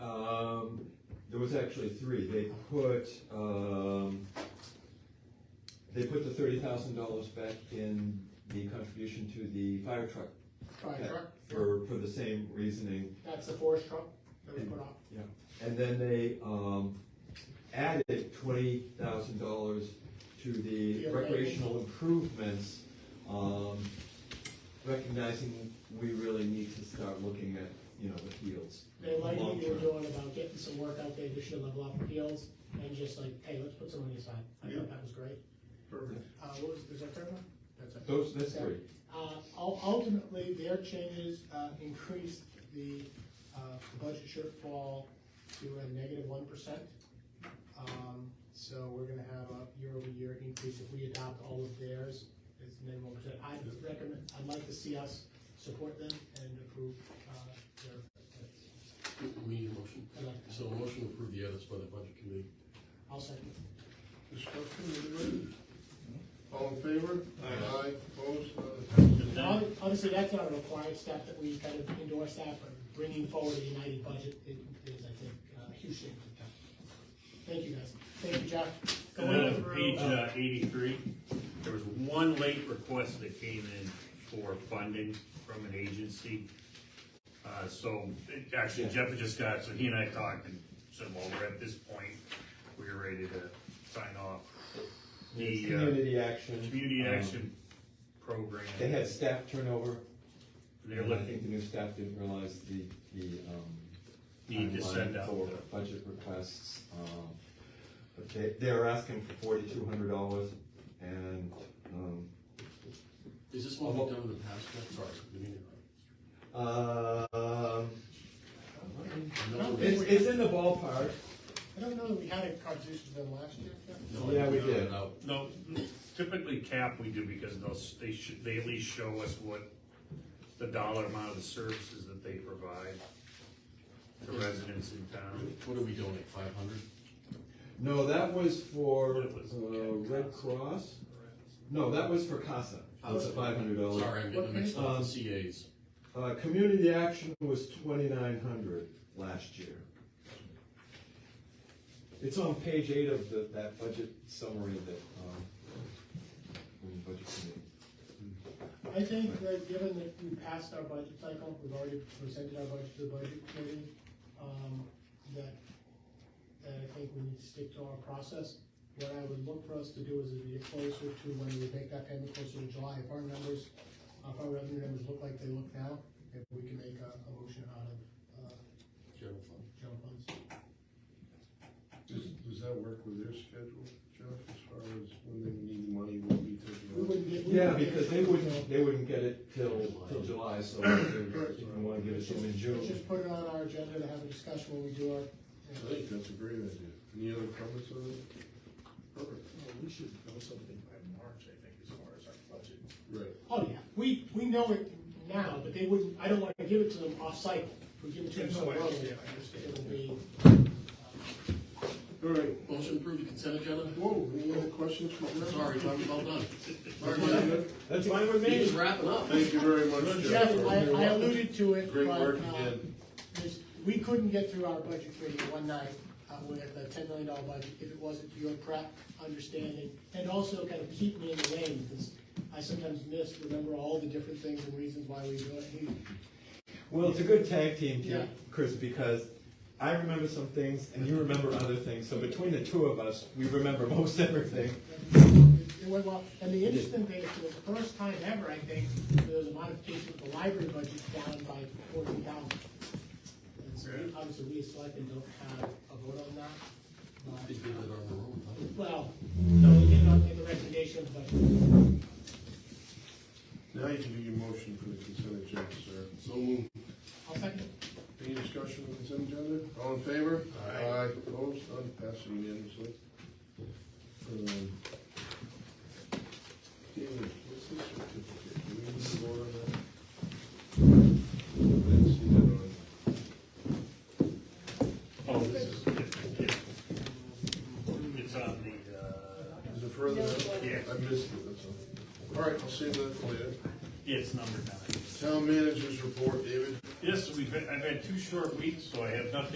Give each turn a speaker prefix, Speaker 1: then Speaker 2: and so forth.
Speaker 1: Um, was actually three, they put, um, they put the thirty thousand dollars back in the contribution to the fire truck.
Speaker 2: Fire truck,
Speaker 1: For, for the same reasoning,
Speaker 2: that's the forest truck that we put on.
Speaker 1: and then they, um, added twenty thousand dollars to the
Speaker 2: Yeah, right.
Speaker 1: recreational improvements, um, recognizing we really need to start looking at, you know, the fields.
Speaker 2: They like what you were
Speaker 1: long-term.
Speaker 2: doing about getting some work out there, this year level up fields, and just like, hey, let's put some money aside, I
Speaker 3: Yeah.
Speaker 2: thought that was great.
Speaker 3: Perfect.
Speaker 2: Uh, what was, is that third one? That's it.
Speaker 1: Those, that's three.
Speaker 2: Uh, ul- ultimately, their changes, uh, increased the, uh, budget shortfall to a negative one percent. Um, so we're gonna have a year-over-year increase if we adopt all of theirs, it's minimum percent. I would recommend, I'd like to see us support them and approve, uh, their,
Speaker 4: We need a motion.
Speaker 2: I'd like to-
Speaker 4: So a motion to approve the others by the budget committee.
Speaker 2: I'll second.
Speaker 3: Discussion, anybody? All in favor?
Speaker 1: Aye.
Speaker 3: opposed, none
Speaker 2: And ob- Obviously, that's not a required step that we kind of endorse that, but bringing forward a united budget i- is, I think, uh, a huge thing for the town. Thank you, guys. Thank you, Jeff.
Speaker 5: Uh,
Speaker 2: Going through-
Speaker 5: Page uh, eighty-three, there was one late request that came in for funding from an agency. Uh, so, it- actually Jeff had just got, so he and I talked and said, well, we're at this point, we're ready to sign off.
Speaker 1: It's
Speaker 5: The, uh,
Speaker 1: Community action.
Speaker 5: community
Speaker 1: Um,
Speaker 5: action program,
Speaker 1: They had staff turnover,
Speaker 5: they're
Speaker 1: and I
Speaker 5: looking,
Speaker 1: think the new staff didn't realize the, the, um.
Speaker 5: need to
Speaker 1: timeline
Speaker 5: send out
Speaker 1: For
Speaker 5: the
Speaker 1: budget requests, um, but they, they're asking for forty-two hundred dollars, and, um,
Speaker 4: Is this one we've done in the past, Jeff? Sorry, we need it.
Speaker 1: uh,
Speaker 4: I know we-
Speaker 1: it's, it's in the ballpark,
Speaker 2: I don't know that we had a contribution done last year, Jeff.
Speaker 4: no, I
Speaker 1: yeah, we
Speaker 4: know it
Speaker 1: did.
Speaker 4: out.
Speaker 5: No, typically cap we do because those, they should, they at least show us what the dollar amount of the services that they provide to residents in town.
Speaker 4: What do we donate, five hundred?
Speaker 1: no, that was for,
Speaker 5: That was-
Speaker 1: uh, Red Cross, no, that was for CASA, that's a five hundred dollar.
Speaker 4: Sorry, I'm getting mixed up,
Speaker 1: Um,
Speaker 4: with CAs.
Speaker 1: Uh, community action was twenty-nine hundred last year. It's on page eight of the, that budget summary that, um, in the budget committee.
Speaker 2: I think that given that we passed our budget cycle, we've already presented our budget to the budget committee, um, that, that I think we need to stick to our process. What I would look for us to do is to get closer to when we make that payment closer to July, if our numbers, if our revenue numbers look like they look now, if we can make a, a motion out of, uh,
Speaker 4: General fund.
Speaker 2: general funds.
Speaker 3: Does, does that work with their schedule, Jeff, as far as when they need money, will
Speaker 2: We
Speaker 3: be taken
Speaker 2: wouldn't get- we
Speaker 1: Yeah,
Speaker 2: wouldn't get-
Speaker 1: because they wouldn't, they wouldn't get it till, till July, so they wouldn't wanna give it
Speaker 2: Let's
Speaker 1: to them in
Speaker 2: just, let's
Speaker 1: June.
Speaker 2: just put it on our agenda to have a discussion when we do our,
Speaker 3: I think that's a great idea. Any other comments on it? Perfect.
Speaker 6: We should know something by March, I think, as far as our budget.
Speaker 3: Right.
Speaker 2: Oh, yeah, we, we know it now, but they wouldn't, I don't wanna give it to them off-cycle, if we give it to them so
Speaker 6: Yeah, no, I-
Speaker 2: early,
Speaker 6: yeah, I understand.
Speaker 2: it'll be.
Speaker 3: All right,
Speaker 4: Motion approved the consent agenda?
Speaker 3: whoa, any other questions for Jeff?
Speaker 4: Sorry, I'm well done. Sorry,
Speaker 3: Everybody
Speaker 4: Jeff.
Speaker 3: good?
Speaker 1: That's fine with
Speaker 4: He was
Speaker 1: me.
Speaker 4: wrapping up.
Speaker 3: Thank you very much, Jeff.
Speaker 2: Jeff, I, I alluded to it,
Speaker 3: Great
Speaker 2: but,
Speaker 3: work
Speaker 2: uh,
Speaker 3: again.
Speaker 2: there's- we couldn't get through our budget committee one night, uh, with a ten million dollar budget, if it wasn't for your prep, understanding, and also kind of keep me in the lane, because I sometimes miss, remember all the different things and reasons why we do it, He-
Speaker 1: Well, it's a good tag team,
Speaker 2: Yeah.
Speaker 1: team, Chris, because I remember some things and you remember other things, so between the two of us, we remember most everything.
Speaker 2: It went well, and the interesting thing is, for the first time ever, I think, there was a modification of the library budget down by fourteen thousand. And so, we- obviously, we as selectmen don't have a vote on that,
Speaker 4: They
Speaker 2: but,
Speaker 4: did it on their own, huh?
Speaker 2: well, no, we did not make a recommendation, but
Speaker 3: Now you can do your motion for the consent agenda, sir.
Speaker 4: So moved.
Speaker 2: I'll second it.
Speaker 3: Any discussion on consent agenda? All in favor?
Speaker 4: Aye.
Speaker 3: Opposed? None? Passed unanimously. Um, David, what's this certificate? Do we need to vote on that? I didn't see that on.
Speaker 5: Oh, this is different, yeah. It's on the, uh,
Speaker 3: Is it further? down?
Speaker 5: Yeah.
Speaker 3: I missed it, that's all. All right, I'll save that for later.
Speaker 5: yeah, it's number nine.
Speaker 3: Town managers report, David?
Speaker 5: Yes, we've, had- I've had two short weeks, so I have nothing